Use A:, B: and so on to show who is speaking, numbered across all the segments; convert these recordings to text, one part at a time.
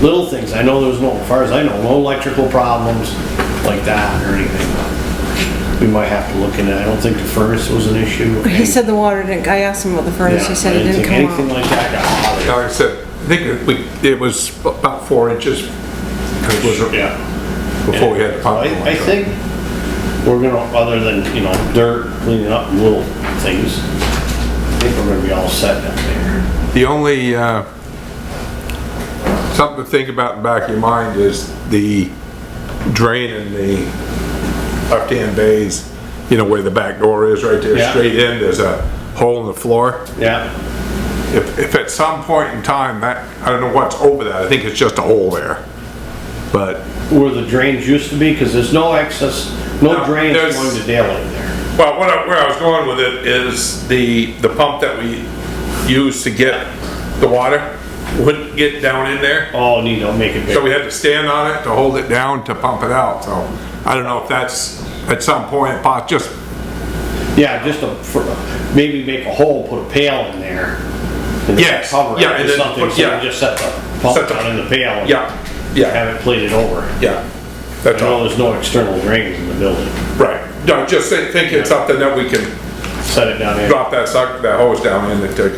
A: little things. I know there was no, as far as I know, no electrical problems like that or anything. We might have to look into it. I don't think the furnace was an issue.
B: He said the water didn't, I asked him about the furnace, he
A: Yeah,
B: said
A: I
B: it didn't
A: think Anything
B: come out.
A: like that got bothered.
C: Like I said, I think it- we, it was about four inches. It was
A: Yeah.
C: Before we had the pump.
A: I, I think we're gonna, other than, you know, dirt, cleaning up little things, I think we're gonna be all set down there.
C: The only, uh, something to think about in the back of your mind is the drain in the left-hand bays, you know, where the back door is right there,
A: Yeah.
C: straight in, there's a hole in the floor.
A: Yeah,
C: If, if at some point in time, that, I don't know what's over that, I think it's just a hole there. But,
A: where the drains used to be, cause there's no excess, no
C: No,
A: drains
C: there's-
A: going to Dale in there.
C: well, what I, where I was going with it is the, the pump that we use to get the water wouldn't get down in there.
A: Oh, need to make it
C: So
A: bigger.
C: we had to stand on it to hold it down to pump it out, so I don't know if that's at some point, pos- just,
A: Yeah, just a, for- maybe make a hole, put a pail in there. and
C: Yes,
A: Cover it
C: yeah, and
A: or
C: then
A: something,
C: put-
A: so
C: yeah.
A: you just set the pump
C: Set the-
A: down in the pail. and
C: yeah, yeah,
A: Have it plated over.
C: yeah.
A: I
C: That's
A: know
C: all,
A: there's no external drains in the building.
C: right. No, just thi- think it's something that we can
A: Set it down in,
C: drop that suck, that hose down in and take,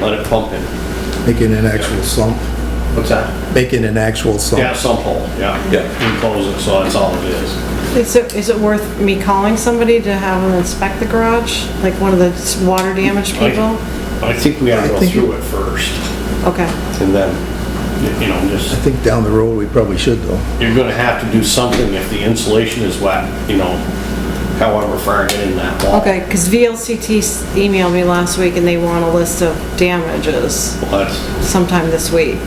A: let it pump in.
D: Making an actual sump,
A: What's that?
D: making an actual
A: Yeah,
D: sump.
A: sump hole, yeah.
C: Yeah.
A: Enclose it, so that's all it is.
B: Is it, is it worth me calling somebody to have them inspect the garage? Like one of the s- water damaged people?
A: I think we gotta
D: I
A: go
D: think-
A: through it first,
B: Okay,
A: and then, you know,
D: I
A: just,
D: think down the road, we probably should though.
A: you're gonna have to do something if the insulation is wet, you know, however far it in that wall.
B: okay, because VLCT s- emailed me last week and they want a list of damages
A: Well, that's-
B: sometime this week.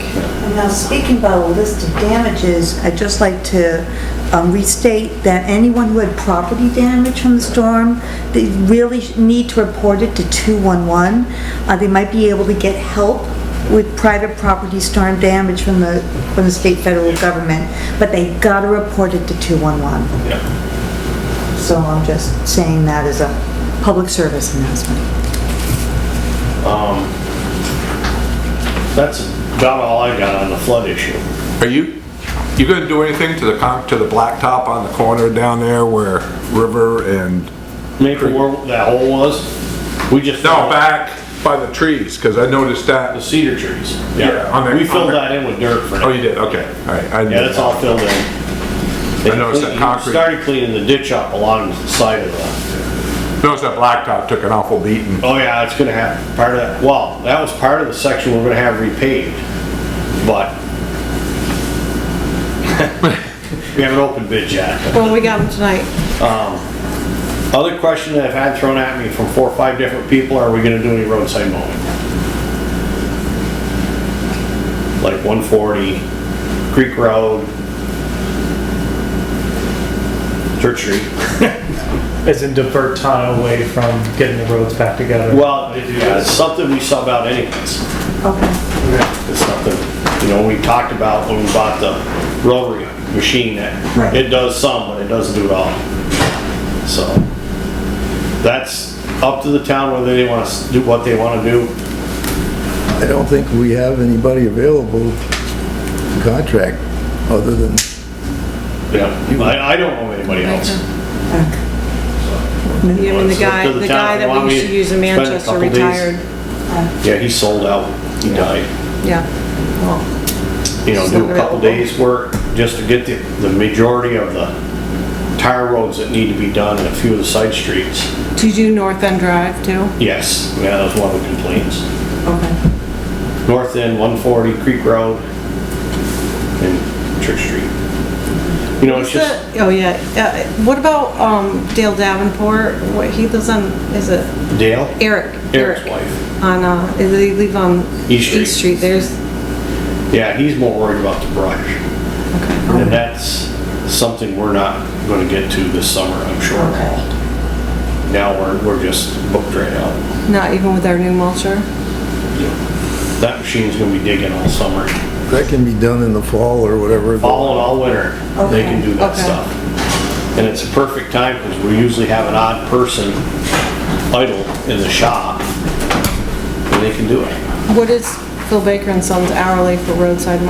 E: And Now, speaking about a list of damages, I'd just like to um, restate that anyone who had property damage from the storm, they really sh- need to report it to 211. Uh, They might be able to get help with private property storm damage from the, from the state federal government, but they gotta report it to 211.
A: yeah.
E: So I'm just saying that as a public service announcement.
A: That's about all I got on the flood issue.
C: Are you, you gonna do anything to the con, to the blacktop on the corner down there where River and,
A: Maple where that hole was, we just.
C: no, back by the trees, cause I noticed
A: The
C: that,
A: cedar trees.
C: Yeah, on the-
A: We
C: on
A: filled
C: the-
A: that in with dirt for now.
C: oh, you did, okay, alright.
A: Yeah, that's all filled in.
C: I noticed that concrete-
A: Started cleaning the ditch up along the side of the,
C: Noticed that blacktop took an awful beating.
A: oh yeah, it's gonna have part of that, well, that was part of the section we're gonna have repaved, but we haven't opened bid yet.
B: Well, we got them tonight.
A: Other question that I've had thrown at me from four or five different people, are we gonna do any roadside mowing? Like one forty, Creek Road, Church Street.
F: As in divert time away from getting the roads back together.
A: Well, yeah, it's something we sub out anyways.
E: Okay.
A: It's something, you know, we talked about when we bought the rotary machine that
D: Right.
A: it does some, but it doesn't do it all. So that's up to the town whether they want to do what they want to do.
D: I don't think we have anybody available to contract other than,
A: Yeah. I, I don't know anybody else.
B: You mean the
A: It's up
B: guy,
A: to the
B: the
A: town.
B: guy
A: If you
B: that
A: want
B: we
A: me
B: used to
A: to
B: use in
A: spend a
B: Manchester
A: couple days-
B: retired?
A: Yeah, he sold out. He died.
B: Yeah, well,
A: You know,
B: Still
A: do a couple
B: available.
A: days work just to get the, the majority of the tire roads that need to be done and a few of the side streets.
B: do you do North End Drive too?
A: Yes, yeah, that was one of the complaints.
B: Okay.
A: North End, 140 Creek Road, and Church Street. You know, it's just,
B: Oh, yeah, Uh, what about um, Dale Davenport, what, he lives on, is it
A: Dale?
B: Eric?
A: Eric's wife.
B: On, uh, they live on
A: East Street.
B: East Street, there's,
A: Yeah, he's more worried about the brush. And that's something we're not gonna get to this summer, I'm sure, at all. Now, we're, we're just booked right out.
B: not even with our new mulcher?
A: That machine's gonna be digging all summer,
D: that can be done in the fall or whatever.
A: fall and all winter, they can do that
B: Okay.
A: stuff. And it's a perfect time, because we usually have an odd person idle in the shop, and they can do it.
B: What is Phil Baker and Son's hourly for roadside